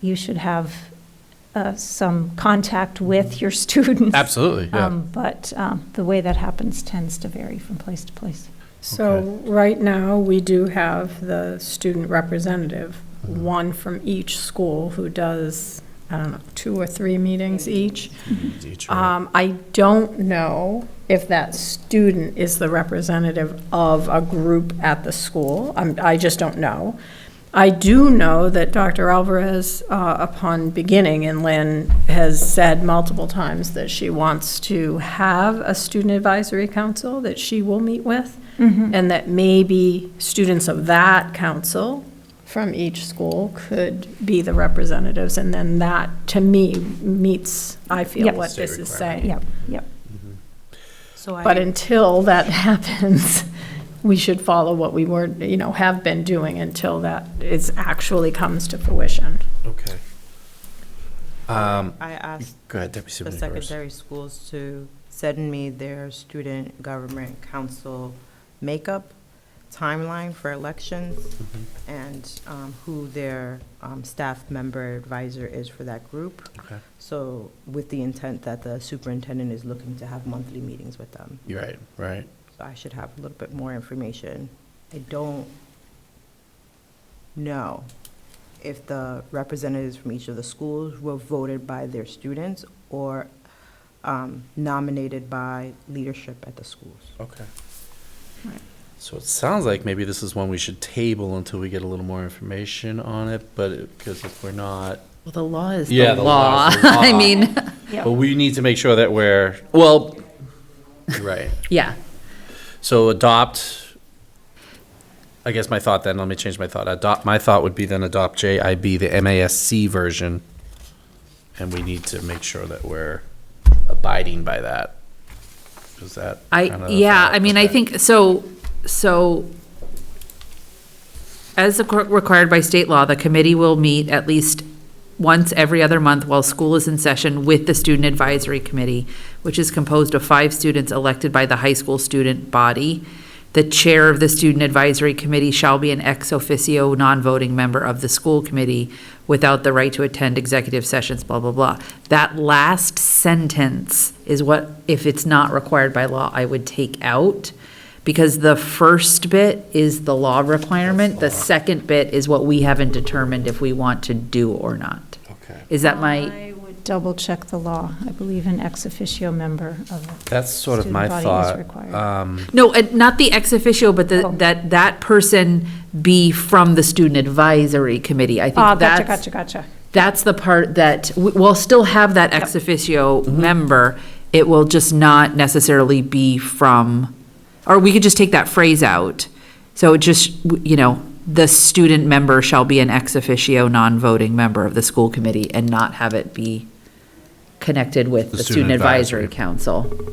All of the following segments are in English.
you should have uh, some contact with your students. Absolutely, yeah. Um, But um, the way that happens tends to vary from place to place. So Okay. right now, we do have the student representative, one from each school who does, I don't know, two or three meetings each. Um, I don't know if that student is the representative of a group at the school. I'm- I just don't know. I do know that Dr. Alvarez, uh, upon beginning in Lynn, has said multiple times that she wants to have a student advisory council that she will meet with, and that maybe students of that council from each school could be the representatives, and then that, to me, meets, I feel, Yep. what this is saying. Yep, yep. Mm-hmm. So But I, until that happens, we should follow what we were, you know, have been doing until that is, actually comes to fruition. Okay. Um, I asked Go ahead, Deputy the Superintendent. secondary schools to send me their student government council makeup timeline for elections Mm-hmm, and um, who their um, staff member advisor is for that group. Okay. So with the intent that the superintendent is looking to have monthly meetings with them. You're right, right. So I should have a little bit more information. I don't know if the representatives from each of the schools were voted by their students or um, nominated by leadership at the schools. Okay. Right. So it sounds like maybe this is one we should table until we get a little more information on it, but, because if we're not, Well, the law is Yeah, the, the law law. is the law. I mean, Yep. but we need to make sure that we're, well, you're right. yeah. So adopt, I guess my thought then, let me change my thought. Adopt, my thought would be then adopt JIB, the MASC version. And we need to make sure that we're abiding by that. Is that? I, kinda- yeah, I mean, I okay. think, so, so as requ- required by state law, the committee will meet at least once every other month while school is in session with the Student Advisory Committee, which is composed of five students elected by the high school student body. The chair of the Student Advisory Committee shall be an ex officio, non-voting member of the school committee without the right to attend executive sessions, blah, blah, blah. That last sentence is what, if it's not required by law, I would take out. Because the first bit is the law requirement, the second bit is what we haven't determined if we want to do or not. Okay. Is that my, I would double check the law. I believe an ex officio member of a That's sort of Student my body is thought. required. Um, no, uh, not the ex officio, but the, Oh. that, that person be from the student advisory committee. I Ah, think gotcha, that's, gotcha, gotcha. that's the part that, we- we'll still have that ex officio Mm-hmm. member. It will just not necessarily be from, or we could just take that phrase out. So it just, w- you know, the student member shall be an ex officio, non-voting member of the school committee and not have it be connected with The the student student advisory advisory. council.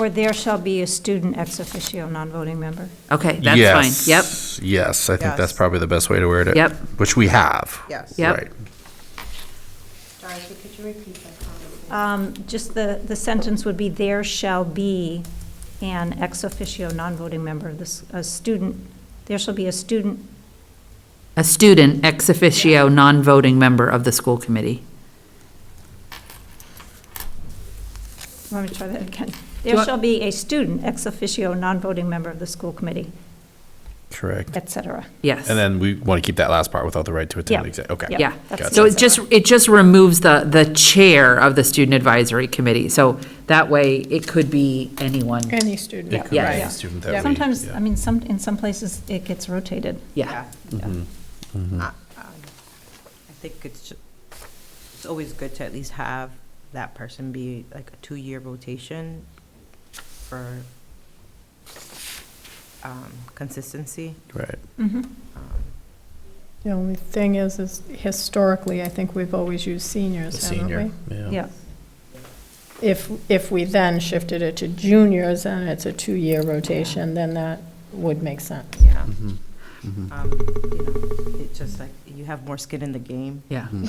Or there shall be a student ex officio non-voting member. Okay, that's fine. Yep, Yep. Yes, I think that's Yes. probably the best way to word it. Yep. Which we have. Yes. Yep. Right. Dorothy, could you repeat that comment? Um, Just the, the sentence would be, there shall be an ex officio non-voting member, this, a student, there shall be a student, a student ex officio, non-voting member of the school committee. let me try that again. you There want- shall be a student ex officio non-voting member of the school committee, Correct. et cetera. Yes. And then we want to keep that last part without the right to attend. Yeah. exa- Okay. Yeah. Yeah, that's so it. it just, it just removes the, the chair of the student advisory committee, so that way it could be anyone, Any student, It could be Yeah. a right. student that Yeah. we- Sometimes, yeah. I mean, some, in some places, it gets rotated. yeah. Mm-hmm. Ah. I um, I think it's, ju- it's always good to at least have that person be like a two-year rotation for um, consistency. Right. Mm-hmm. Um, The only thing is, is historically, I think we've always used The seniors, haven't senior. we? Yeah. Yeah, If, if we then shifted it to juniors and it's a two-year rotation, then that would make sense. Yeah. Mhm. Mhm. um, you know, it's just like, you have more skin in the game. Yeah, Hmm.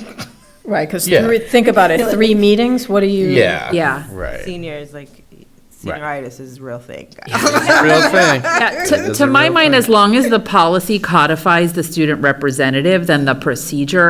Right, because Yeah. think about it, three meetings, what do you? Yeah. yeah. Right. Senior is like, senioritis is a real thing. Real thing. Yeah, It To, is to a my real mind, thing. as long as the policy codifies the student representative, then the procedure